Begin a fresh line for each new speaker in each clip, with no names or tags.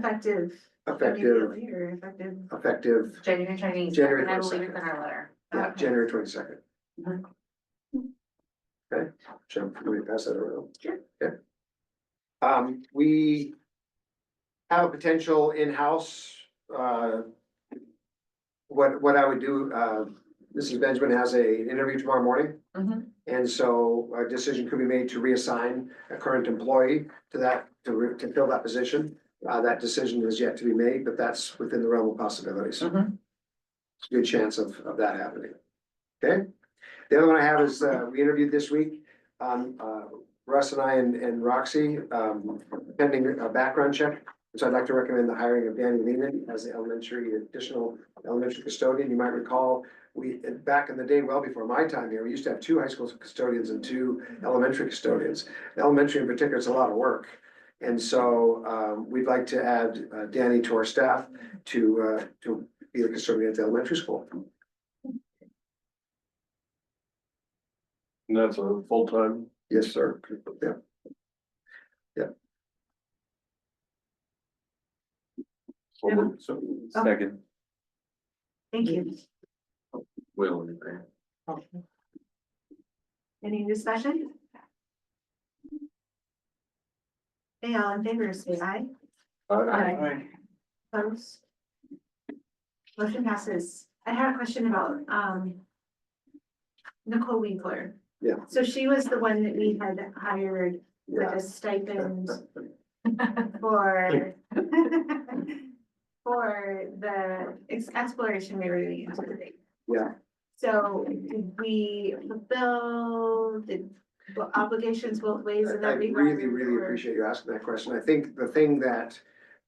Effective.
effective,
immediately Or effective.
effective,
January twenty,
January
and I will leave it in
22nd.
our letter.
yeah,
Okay. Mm-hmm.
January twenty-second.
Mhm.
Okay, Jim, can we pass that around?
Sure.
Okay. Um, we have a potential in-house, uh, what, what I would do, uh, Mrs. Benjamin has a an interview tomorrow morning.
Mm-hmm.
Mhm.
And so a decision could be made to reassign a current employee to that, to, re- to fill that position. Uh, that decision is yet to be made, but that's within the realm of possibilities.
Mhm.
It's a Good chance of, of that happening. Okay? The other one I have is, uh, we interviewed this week, um, uh, Russ and I and, and Roxy, um, pending a background check. So I'd like to recommend the hiring of Danny Lehman as the elementary, additional elementary custodian. You might recall we, back in the day, well before my time here, we used to have two high school custodians and two elementary custodians. Elementary in particular, it's a lot of work. And so, um, we'd like to add uh, Danny to our staff to, uh, to be the custodian at the elementary school.
And that's a full-time.
Yes, sir. Yeah.
So moved. So
Second,
Thank you.
Will, anything?
Any discussion? Hey, all in favor, say aye. Aye. Opposed? Motion passes. I had a question about, um. Nicole Winkler.
Yeah.
So she was the one that we had hired with
Yeah.
a stipend for. For the ex- exploration we were doing. yesterday.
Yeah.
So did we fulfill the obligations both ways in
I I
that regard?
really, really
or-
appreciate you asking that question. I think the thing that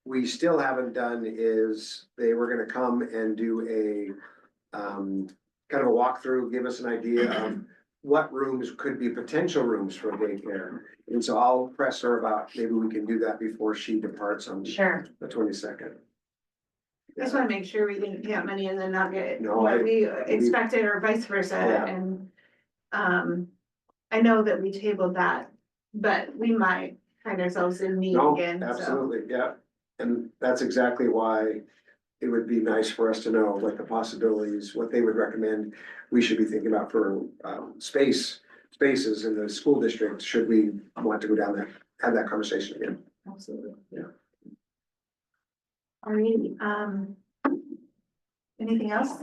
we still haven't done is they were gonna come and do a um, kind of a walkthrough, give us an idea of what rooms could be potential rooms for daycare. And so I'll press her about, maybe we can do that before she departs on
Sure,
the twenty-second.
I just wanna make sure we didn't get money and then not get
No, I-
what we expected or vice versa
Yeah.
and. Um, I know that we tabled that, but we might find ourselves in need
No,
again, so.
absolutely, yeah. And that's exactly why it would be nice for us to know what the possibilities, what they would recommend. We should be thinking about for um space, spaces in the school district, should we want to go down there, have that conversation again.
Absolutely.
Yeah.
All right, um. Anything else?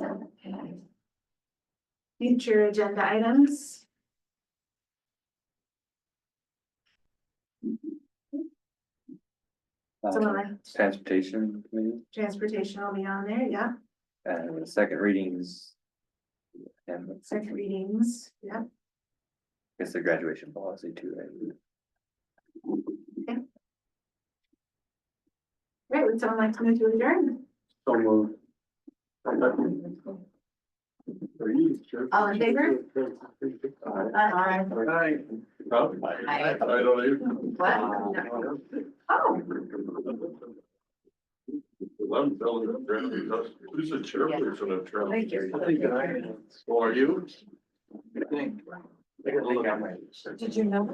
Future agenda items? Someone
uh,
like
transportation committee,
transportation will be on there, yeah,
and the second readings. And I
second readings, yeah.
guess the graduation policy too, right?
Great, would someone like to move to adjourn?
So moved.
All in favor? Aye.
Aye. Huh?
Aye.
I don't even.
What?
Oh,
I'm telling you, Brandon, that's- who's the chairperson of Trump?
Thank you.
Who are you?
I think I'm right.
did you know?